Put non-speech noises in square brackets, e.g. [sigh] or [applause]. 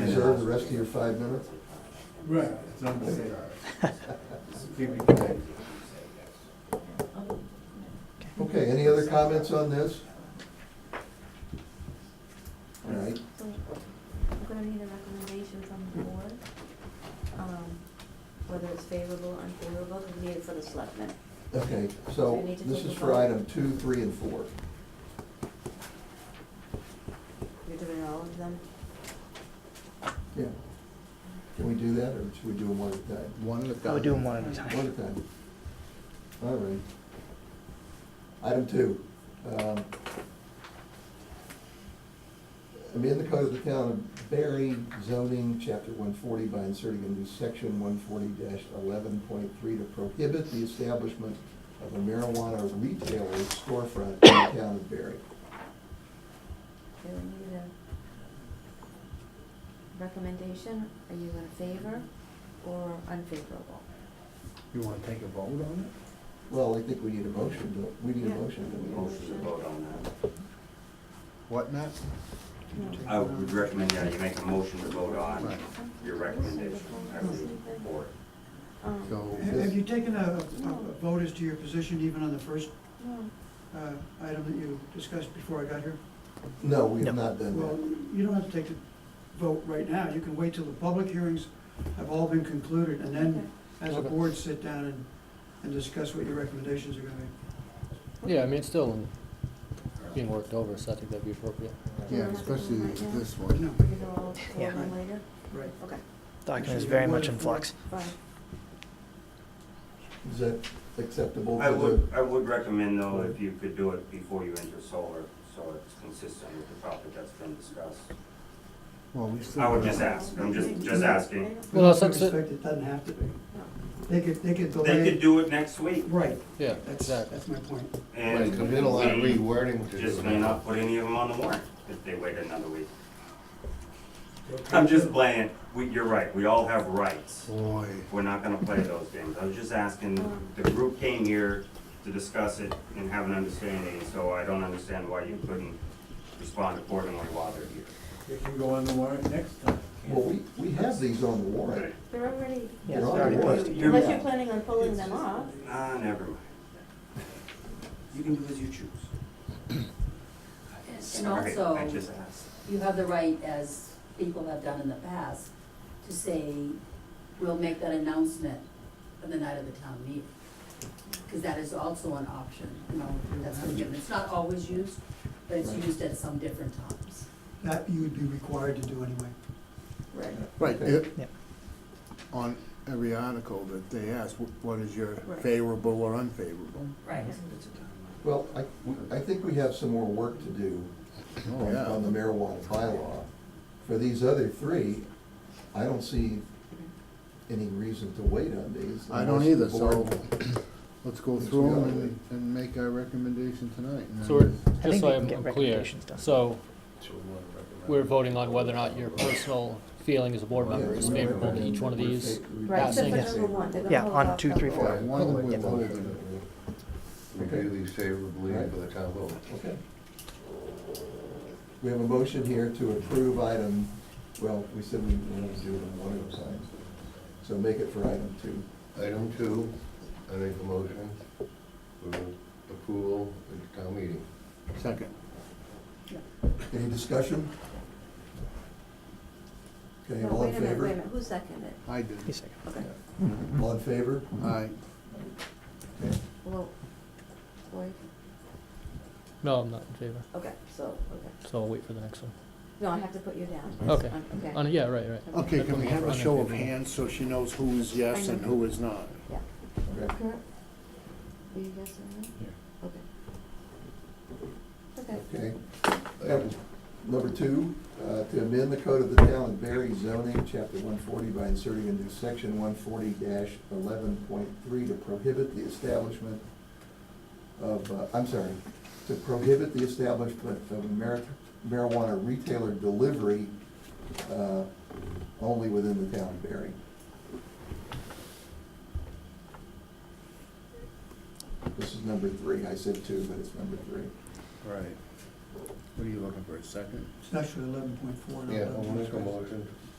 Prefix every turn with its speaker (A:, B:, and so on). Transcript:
A: reserve the rest of your five minutes? [laughs]
B: Right, it's unbelievable. Keep it going.
C: Oh.
A: Okay, any other comments on this? All right,
C: So we're gonna need a recommendation from the board, um, whether it's favorable or unfavorable, because we need it for the selectmen.
A: okay,
C: We
A: so
C: need to
A: this
C: take
A: is
C: a
A: for
C: vote.
A: item two, three, and four.
C: You're doing all of them?
A: Yeah. Can we do that, or should we do them one at a time?
D: One at a time.
E: I would Oh, do them one at a
A: One
E: time.
A: at a time. All right. Item two. um, Amend the code of the town of Berry zoning, chapter one forty, by inserting a new section one forty eleven point three to prohibit the establishment of a marijuana retailer's storefront in the town of Berry.
C: Okay, we need a recommendation, are you in favor or unfavorable?
D: You wanna take a vote on
A: Well, I think we need a motion, don't- we need a
C: Yeah.
A: motion. don't
F: Motion to vote on that.
D: it? What, Matt?
F: I would recommend that you make a motion to vote on
D: Right.
F: your recommendation. I would support.
C: Um,
D: So,
G: Have have you taken a a vote as to your position even on the first
C: no,
G: uh, item that you discussed before I got here?
A: we? No, we have
E: No.
A: not done
G: Well,
A: that.
G: you don't have to take the vote right now. You can wait till the public hearings have all been concluded, and then as a
H: Okay.
G: board, sit down and, and discuss what your recommendations are gonna be.
H: Yeah, I mean, it's still being worked over, so I think that'd be appropriate.
D: yeah, especially this one.
G: No,
C: we can go all four of them
G: Yeah.
C: later?
G: right.
C: Okay,
E: Document is very much in flux.
C: fine.
A: Is that acceptable?
F: I
A: to the-
F: would, I would recommend though, if you could do it before you enter solar, so it's consistent with the topic that's been discussed.
D: Well, we still.
F: I would just ask, I'm just, just asking.
G: We
H: Well,
G: also
H: that's it.
G: expect it doesn't have to be.
C: No.
G: They could, they could
F: They could
G: delay,
F: do it next week
G: right,
H: Yeah,
G: that's,
H: exactly.
G: that's my point.
F: and.
D: Right, there's been a lot of
F: we
D: rewording to do
F: Just may
D: now.
F: not put any of them on the warrant if they wait another week. I'm just playing, we, you're right, we all have rights.
D: Boy,
F: We're not gonna play those games. I was just asking, the group came here to discuss it and have an understanding, so I don't understand why you couldn't respond accordingly while they're here.
B: It can go on the warrant next time.
A: Well, we, we have these on the warrant.
C: They're already,
A: They're on the warrant.
F: You're-
C: unless you're planning on pulling them off,
F: Ah, never mind. You can do as you choose.
I: And
F: Sorry, I
I: also,
F: just asked.
I: you have the right, as people have done in the past, to say, we'll make that announcement on the night of the town meeting. Because that is also an option, you know, that's been given. It's not always used, but it's used at some different times.
G: That you would be required to do anyway.
C: right,
D: right,
A: Okay.
D: it-
E: Yeah.
D: on every article that they ask, wh- what is your
C: Right.
D: favorable or unfavorable?
I: Right.
A: Well, I, we- I think we have some more work to do
J: Oh,
A: on
D: Oh, yeah.
A: on the marijuana bylaw. For these other three, I don't see any reason to wait on these.
D: I don't
A: unless
D: either,
A: the
D: so
A: board-
D: let's go
A: Yes,
D: through
A: we
D: them
A: are.
D: and, and make our recommendation tonight. and
H: So we're,
D: then-
E: I
H: just
E: think
H: so
E: we can
H: I'm
E: get
H: I'm clear,
E: recommendations done.
H: so we're voting on whether or not your personal feeling as a board member is
A: Yeah, we
H: favorable to each one of
A: recommend-
H: these.
A: we
C: right, except
A: recommend-
C: for number one, they're gonna
E: Yeah,
C: hold
E: on
C: off
E: two,
C: till
E: three, four.
C: four.
D: Yeah, one
E: Yeah.
D: we're voting.
A: Okay,
J: Review these favorably
A: Right.
J: for the town vote.
A: okay. We have a motion here to approve item, well, we said we wanted to do them one at a time. So make it for item two.
J: Item two, I make a motion for approval at the town meeting.
D: Second.
A: Any discussion? Okay,
C: No,
A: all in
C: wait a minute, wait a
A: favor?
C: minute, who seconded it?
D: I did.
E: He's second.
C: Okay,
A: All in favor?
D: Aye.
A: Okay.
C: well, Cory,
H: No, I'm not in favor,
C: okay, so, okay,
H: so I'll wait for the next one.
C: no, I have to put you down.
H: Okay.
C: Um,
H: On,
C: Okay.
H: yeah, right, right.
D: Okay, can we have a show of hands so she knows who is yes and who is not?
C: Yeah.
A: Okay.
C: Kurt? Are you guys all right? Okay. Okay,
A: Okay.
J: Item
A: Number two, uh, to amend the code of the town of Berry zoning, chapter one forty, by inserting a new section one forty eleven point three to prohibit the establishment of, uh, I'm sorry, to prohibit the establishment of a mar- marijuana retailer delivery uh, only within the town of Berry. This is number three. I said two, but it's number three.
D: Right. What are you looking for, a second?
G: It's actually eleven point four, not
J: Yeah,
G: eleven
J: I'll
G: point
J: make a
G: three.
J: motion